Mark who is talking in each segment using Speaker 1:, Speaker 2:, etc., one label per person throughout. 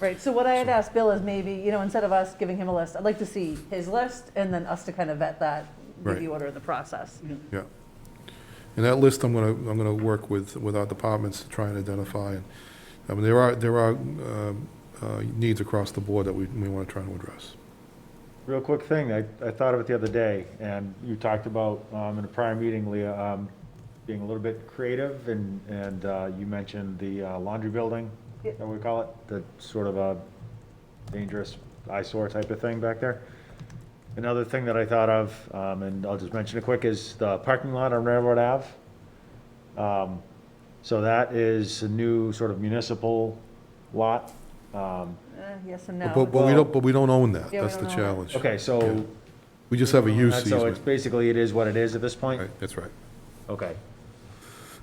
Speaker 1: Right, so what I had asked Bill is maybe, you know, instead of us giving him a list, I'd like to see his list and then us to kind of vet that, with
Speaker 2: Right.
Speaker 1: the order of the process.
Speaker 2: Yeah. And that list, I'm going to, I'm going to work with, with our departments to try and identify. And I mean, there are, there are um, uh, needs across the board that we, we want to try and address.
Speaker 3: Real quick thing, I, I thought of it the other day, and you talked about, um, in a prior meeting, Leah, um, being a little bit creative, and, and, uh, you mentioned the uh, laundry building,
Speaker 1: Yeah.
Speaker 3: that we call it, the sort of a dangerous eyesore type of thing back there. Another thing that I thought of, um, and I'll just mention it quick, is the parking lot on Railroad Ave. Um, so that is a new sort of municipal lot, um,
Speaker 1: Eh, Yes and
Speaker 2: But,
Speaker 1: no.
Speaker 2: but we
Speaker 3: Well-
Speaker 2: don't, but we don't own that.
Speaker 1: Yeah, we
Speaker 2: That's the
Speaker 1: don't own it.
Speaker 2: challenge.
Speaker 3: okay,
Speaker 2: Yeah.
Speaker 3: so
Speaker 2: We just have a use
Speaker 3: And Uh, So it's
Speaker 2: easement.
Speaker 3: basically, it is what it is at this point?
Speaker 2: Right, that's right.
Speaker 3: Okay,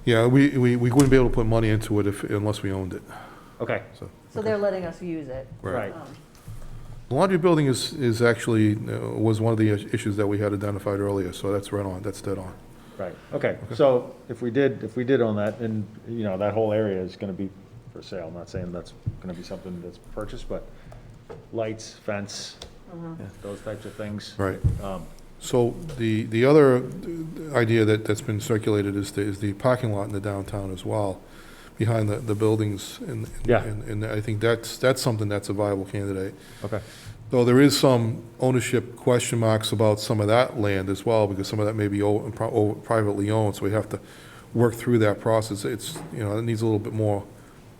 Speaker 2: Yeah, we, we, we wouldn't be able to put money into it if, unless we owned it,
Speaker 3: okay,
Speaker 2: so.
Speaker 1: So they're letting us use it.
Speaker 3: right.
Speaker 1: Um,
Speaker 2: The Laundry building is, is actually, uh, was one of the issues that we had identified earlier, so that's right on, that's dead on.
Speaker 3: Right, okay, so if we did, if we did own that, and, you know, that whole area is gonna be for sale, I'm not saying that's gonna be something that's purchased, but lights, fence, those types of things.
Speaker 2: Right.
Speaker 3: Um,
Speaker 2: So the, the other uh, idea that, that's been circulated is the, is the parking lot in the downtown as well, behind the, the buildings. And,
Speaker 3: Yeah.
Speaker 2: and and I think that's, that's something that's a viable candidate.
Speaker 3: Okay,
Speaker 2: Though there is some ownership question marks about some of that land as well, because some of that may be o- pro- o- privately owned, so we have to work through that process. It's, you know, it needs a little bit more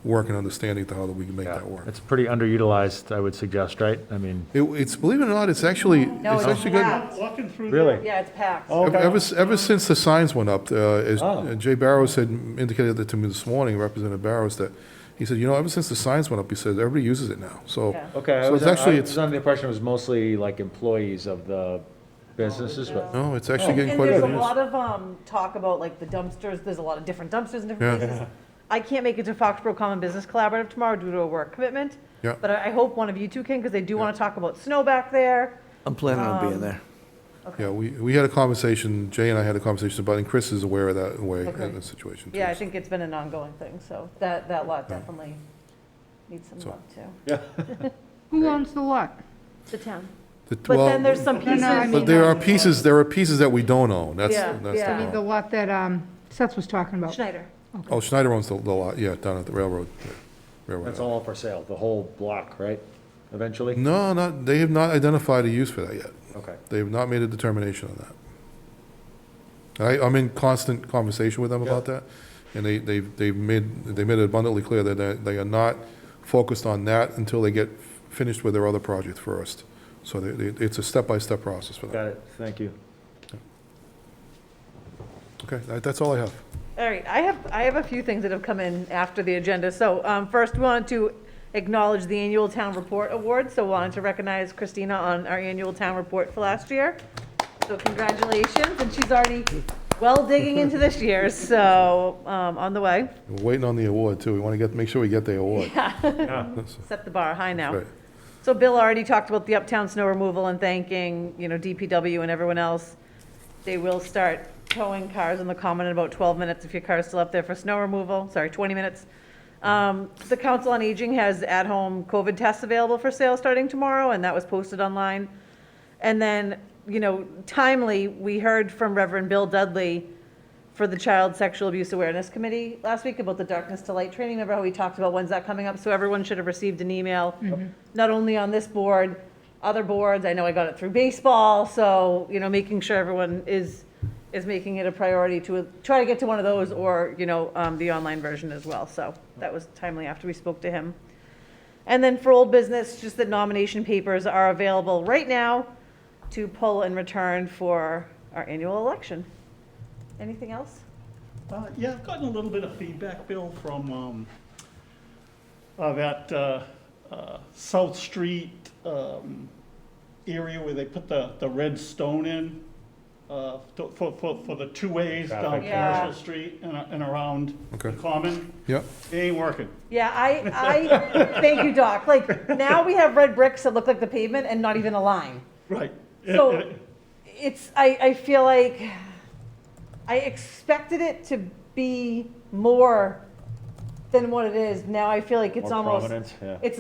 Speaker 2: work and understanding to how that we can make
Speaker 3: yeah,
Speaker 2: that work.
Speaker 3: it's pretty underutilized, I would suggest, right? I mean,
Speaker 2: It, it's, believe it or not, it's actually, it's
Speaker 1: it's
Speaker 2: actually good.
Speaker 1: not.
Speaker 4: Walking through there.
Speaker 3: really?
Speaker 1: Yeah, it's packed.
Speaker 3: Oh. Okay.
Speaker 2: Ever, s- ever since the signs went up, uh, as
Speaker 3: Oh.
Speaker 2: Jay Barrows had indicated that to me this morning, Representative Barrows, that, he said, you know, ever since the signs went up, he said, everybody uses it now, so.
Speaker 1: Yeah.
Speaker 3: Okay, I
Speaker 2: So
Speaker 3: was,
Speaker 2: it's
Speaker 3: I
Speaker 2: actually,
Speaker 3: was
Speaker 2: it's,
Speaker 3: under the impression it was mostly like employees of the businesses, but,
Speaker 2: no, it's actually
Speaker 1: And
Speaker 2: getting
Speaker 1: and
Speaker 2: quite a
Speaker 1: there's a
Speaker 2: bit.
Speaker 1: lot of um, talk about like the dumpsters, there's a lot of different dumpsters in different
Speaker 2: Yeah.
Speaker 1: places. I can't make it to Foxborough Common Business Collaborative tomorrow due to a work commitment.
Speaker 2: Yeah.
Speaker 1: But I I hope one of you two can, because they do want to talk about snow back there.
Speaker 5: I'm planning on being there.
Speaker 2: Yeah, we, we had a conversation, Jay and I had a conversation about, it, and Chris is aware of that way,
Speaker 1: Okay.
Speaker 2: in the situation too.
Speaker 1: Yeah, I think it's been an ongoing thing, so that, that lot definitely needs some
Speaker 2: So-
Speaker 1: love too.
Speaker 6: Who owns the lot?
Speaker 1: The town.
Speaker 2: The-
Speaker 1: But
Speaker 2: well,
Speaker 1: then there's some
Speaker 6: No, no, I
Speaker 1: pieces,
Speaker 6: mean-
Speaker 2: But there are pieces, there are pieces that we don't own, that's,
Speaker 1: Yeah,
Speaker 2: that's the
Speaker 1: yeah.
Speaker 6: I mean, the
Speaker 2: problem.
Speaker 6: lot that um, Seth was talking about.
Speaker 1: Schneider.
Speaker 2: Oh, Schneider owns the the lot, yeah, down at the railroad, yeah, railroad.
Speaker 3: that's all for sale, the whole block, right? Eventually?
Speaker 2: No, not, they have not identified a use for that yet.
Speaker 3: Okay.
Speaker 2: They have not made a determination on that. I, I'm in constant conversation with them about that, and they, they've, they've made, they made it abundantly clear that they- they are not focused on that until they get finished with their other project first. So they, they- it's a step-by-step process for them.
Speaker 3: Got it, thank you.
Speaker 2: Okay, that- that's all I have.
Speaker 1: All right, I have, I have a few things that have come in after the agenda. So um, first, we wanted to acknowledge the annual Town Report Award, so wanted to recognize Christina on our annual Town Report for last year. So congratulations, and she's already well digging into this year, so um, on the way.
Speaker 2: We're waiting on the award, too. We want to get, make sure we get the award.
Speaker 1: Set the bar high now.
Speaker 2: Right.
Speaker 1: So Bill already talked about the uptown snow removal and thanking, you know, DPW and everyone else. They will start towing cars on the common in about 12 minutes if your car's still up there for snow removal, sorry, 20 minutes. Um, The Council on Aging has at-home COVID tests available for sale starting tomorrow, and that was posted online. And then, you know, timely, we heard from Reverend Bill Dudley for the Child Sexual Abuse Awareness Committee last week about the Darkness to Light training. Remember how we talked about when's that coming up? So everyone should have received an email, not only on this board, other boards. I know I got it through baseball, so, you know, making sure everyone is, is making it a priority to try to get to one of those or, you know, um, the online version as well. So that was timely after we spoke to him. And then for old business, just that nomination papers are available right now to pull and return for our annual election. Anything else?
Speaker 4: Uh, Yeah, I've gotten a little bit of feedback, Bill, from um, uh, that uh, uh, South Street um, area where they put the, the red stone in uh, to- for, for, for the two ways down
Speaker 3: Traffic.
Speaker 1: Yeah.
Speaker 4: Commercial Street and and around the
Speaker 2: Okay.
Speaker 4: Common.
Speaker 2: Yep,
Speaker 4: It ain't working.
Speaker 1: Yeah, I, I, thank you, Doc. Like, now we have red bricks that look like the pavement and not even a line.
Speaker 4: Right. It-
Speaker 1: So
Speaker 4: it-
Speaker 1: it's, I, I feel like I expected it to be more than what it is. Now I feel like it's
Speaker 3: More
Speaker 1: almost,
Speaker 3: prominent, yeah.
Speaker 1: it's